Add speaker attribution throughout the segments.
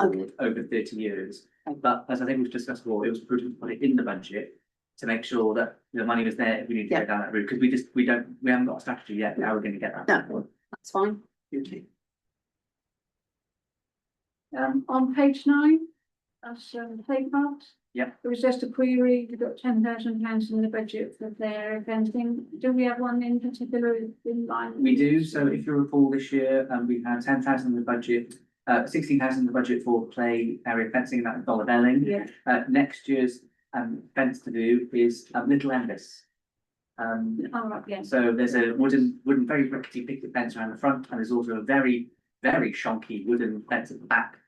Speaker 1: Okay.
Speaker 2: over thirty years.
Speaker 1: Okay.
Speaker 2: But as I think we've discussed before, it was prudent to put it in the budget to make sure that the money was there if we need to
Speaker 1: Yeah.
Speaker 2: go down that route, because we just, we don't, we haven't got a strategy yet, how we're gonna get that.
Speaker 1: No. That's fine.
Speaker 3: Um, on page nine, that's um, the pay part.
Speaker 2: Yeah.
Speaker 3: It was just a query, we've got ten thousand pounds in the budget for their fencing, do we have one in particular in line?
Speaker 2: We do, so if you recall this year, um, we had ten thousand in the budget, uh, sixteen thousand in the budget for play area fencing, that's Dollar Belling.
Speaker 3: Yeah,
Speaker 2: Uh, next year's, um, fence to do is, um, Little Envis. Um,
Speaker 3: all right, yes,
Speaker 2: So there's a wooden, wooden, very rickety picket fence around the front, and there's also a very, very shonky wooden fence at the back.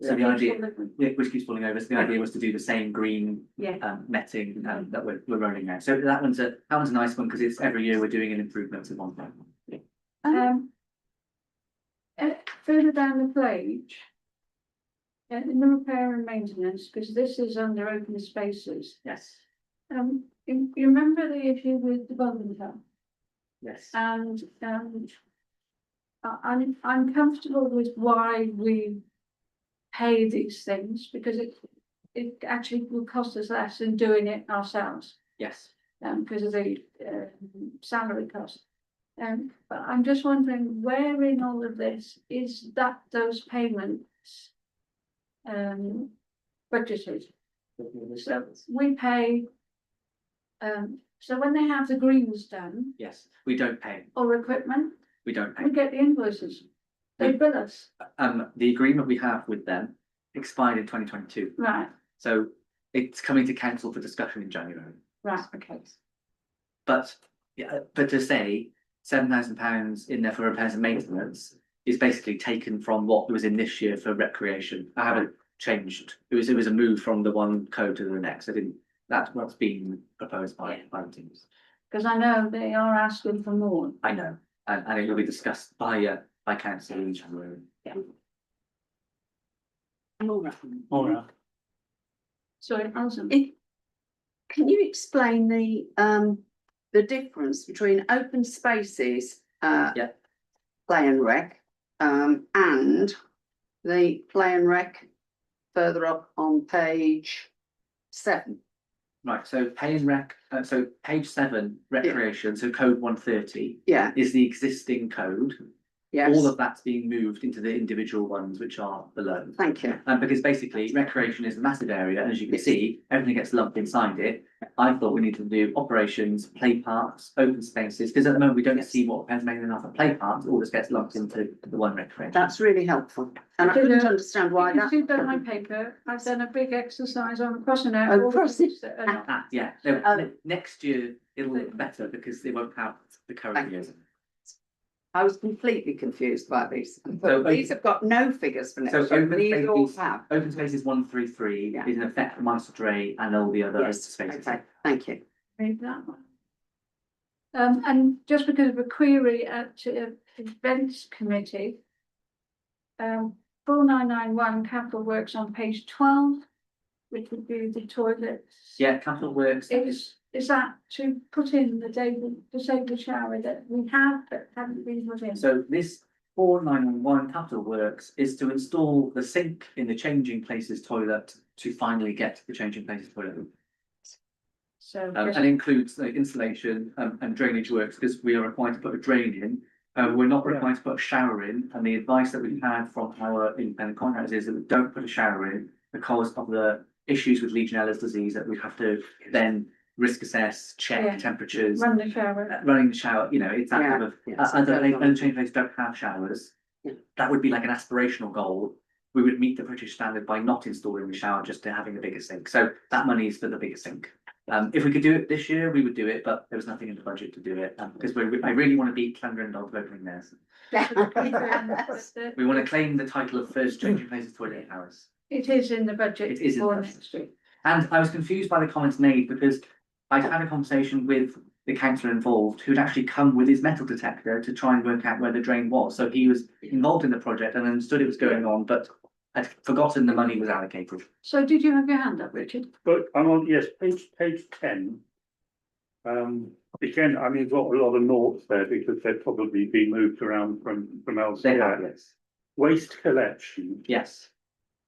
Speaker 2: So the idea, yeah, which keeps falling over, so the idea was to do the same green
Speaker 3: yeah,
Speaker 2: um netting um that we're we're running now. So that one's a, that one's a nice one, because it's every year we're doing an improvement to one thing.
Speaker 3: um. Uh, further down the page. Uh, in the repair and maintenance, because this is under open spaces,
Speaker 2: Yes,
Speaker 3: um, you, you remember the issue with the bowling alley?
Speaker 2: yes.
Speaker 3: And, um. I, I'm, I'm comfortable with why we pay these things, because it, it actually will cost us less than doing it ourselves.
Speaker 2: Yes,
Speaker 3: Um, because of the, um salary cost. Um, but I'm just wondering where in all of this is that those payments? Um, budgeted? So we pay. Um, so when they have the greens done
Speaker 2: yes, we don't pay,
Speaker 3: or equipment,
Speaker 2: we don't pay.
Speaker 3: we get the invoices. They
Speaker 2: Yeah.
Speaker 3: bill us,
Speaker 2: Um, the agreement we have with them expired in twenty twenty two,
Speaker 3: right,
Speaker 2: so it's coming to council for discussion in January.
Speaker 3: right, okay.
Speaker 2: But, yeah, but to say seven thousand pounds in there for repairs and maintenance is basically taken from what was in this year for recreation. I haven't changed. It was, it was a move from the one code to the next. I didn't, that's what's been proposed by, by the teams.
Speaker 3: Because I know they are asking for more.
Speaker 2: I know, and, and it will be discussed by, uh, by council in January.
Speaker 1: Laura,
Speaker 2: Maura.
Speaker 3: So it hasn't.
Speaker 1: It- can you explain the, um, the difference between open spaces, uh,
Speaker 2: Yeah.
Speaker 1: play and rec, um, and the play and rec further up on page seven?
Speaker 2: Right, so pay and rec, uh, so page seven, recreation, so code one thirty
Speaker 1: Yeah,
Speaker 2: is the existing code.
Speaker 1: yes,
Speaker 2: All of that's being moved into the individual ones which are below.
Speaker 1: thank you.
Speaker 2: Um, because basically recreation is a massive area, and as you can
Speaker 1: Yes.
Speaker 2: see, everything gets lumped inside it. I thought we needed to do operations, play parks, open spaces, because at the moment we don't
Speaker 1: Yes.
Speaker 2: see what depends mainly enough of play parks, it all just gets lumped into the one recreation.
Speaker 1: That's really helpful. And I
Speaker 3: Did,
Speaker 1: couldn't
Speaker 3: uh,
Speaker 1: understand why
Speaker 3: You
Speaker 1: that.
Speaker 3: can see that on my paper, I've done a big exercise on crossing out.
Speaker 1: Oh,
Speaker 3: all the
Speaker 1: cross
Speaker 3: things that are not-
Speaker 2: Ah, yeah, no,
Speaker 1: Oh.
Speaker 2: ne- next year it'll look better because they won't have the current
Speaker 1: Thank
Speaker 2: years.
Speaker 1: I was completely confused by these.
Speaker 2: So, okay.
Speaker 1: These have got no figures for
Speaker 2: So
Speaker 1: next year.
Speaker 2: open
Speaker 1: These all
Speaker 2: spaces-
Speaker 1: have.
Speaker 2: Open spaces one three three
Speaker 1: Yeah.
Speaker 2: is an effect for Munster Dray and all the other
Speaker 1: Yes,
Speaker 2: spaces.
Speaker 1: Okay, thank you.
Speaker 3: Read that one. Um, and just because of a query at uh, events committee. Um, four nine nine one capital works on page twelve, which would be the toilets.
Speaker 2: Yeah, Capital Works,
Speaker 3: is, is that to put in the disabled, disabled shower that we have but haven't been put in?
Speaker 2: So this four nine one one capital works is to install the sink in the changing places toilet to finally get the changing places toilet.
Speaker 3: So,
Speaker 2: Um,
Speaker 3: just-
Speaker 2: and includes the installation um, and drainage works because we are required to put a drain in. Uh, we're not required to put a shower in and the advice that we've had from our independent contractors is that we don't put a shower in because of the issues with Legionella's disease that we have to then risk assess,
Speaker 3: Yeah.
Speaker 2: check temperatures,
Speaker 3: run the shower,
Speaker 2: uh, running the shower, you know, it's that kind of
Speaker 1: Yeah,
Speaker 2: uh,
Speaker 1: so
Speaker 2: and
Speaker 1: those
Speaker 2: they,
Speaker 1: are-
Speaker 2: and change places don't have showers.
Speaker 1: Yeah.
Speaker 2: That would be like an aspirational goal. We would meet the British standard by not installing the shower, just to having the bigger sink. So that money is for the bigger sink. Um, if we could do it this year, we would do it, but there was nothing in the budget to do it, um, because we, I really want to beat Clender and Dog opening theirs.
Speaker 3: Yes.
Speaker 2: We want to claim the title of first changing places toilet hours.
Speaker 3: It is in the budget
Speaker 2: It is in
Speaker 3: for
Speaker 2: the
Speaker 3: next week.
Speaker 2: And I was confused by the comments made because I'd had a conversation with the councillor involved who'd actually come with his metal detector to try and work out where the drain was. So he was involved in the project and understood it was going on, but had forgotten the money was allocated.
Speaker 3: So did you have your hand up, Richard?
Speaker 4: But I'm on, yes, page, page ten. Um, again, I mean, I've got a lot of notes there because they've probably been moved around from, from
Speaker 2: They have,
Speaker 4: elsewhere.
Speaker 2: yes.
Speaker 4: Waste collection,
Speaker 2: Yes,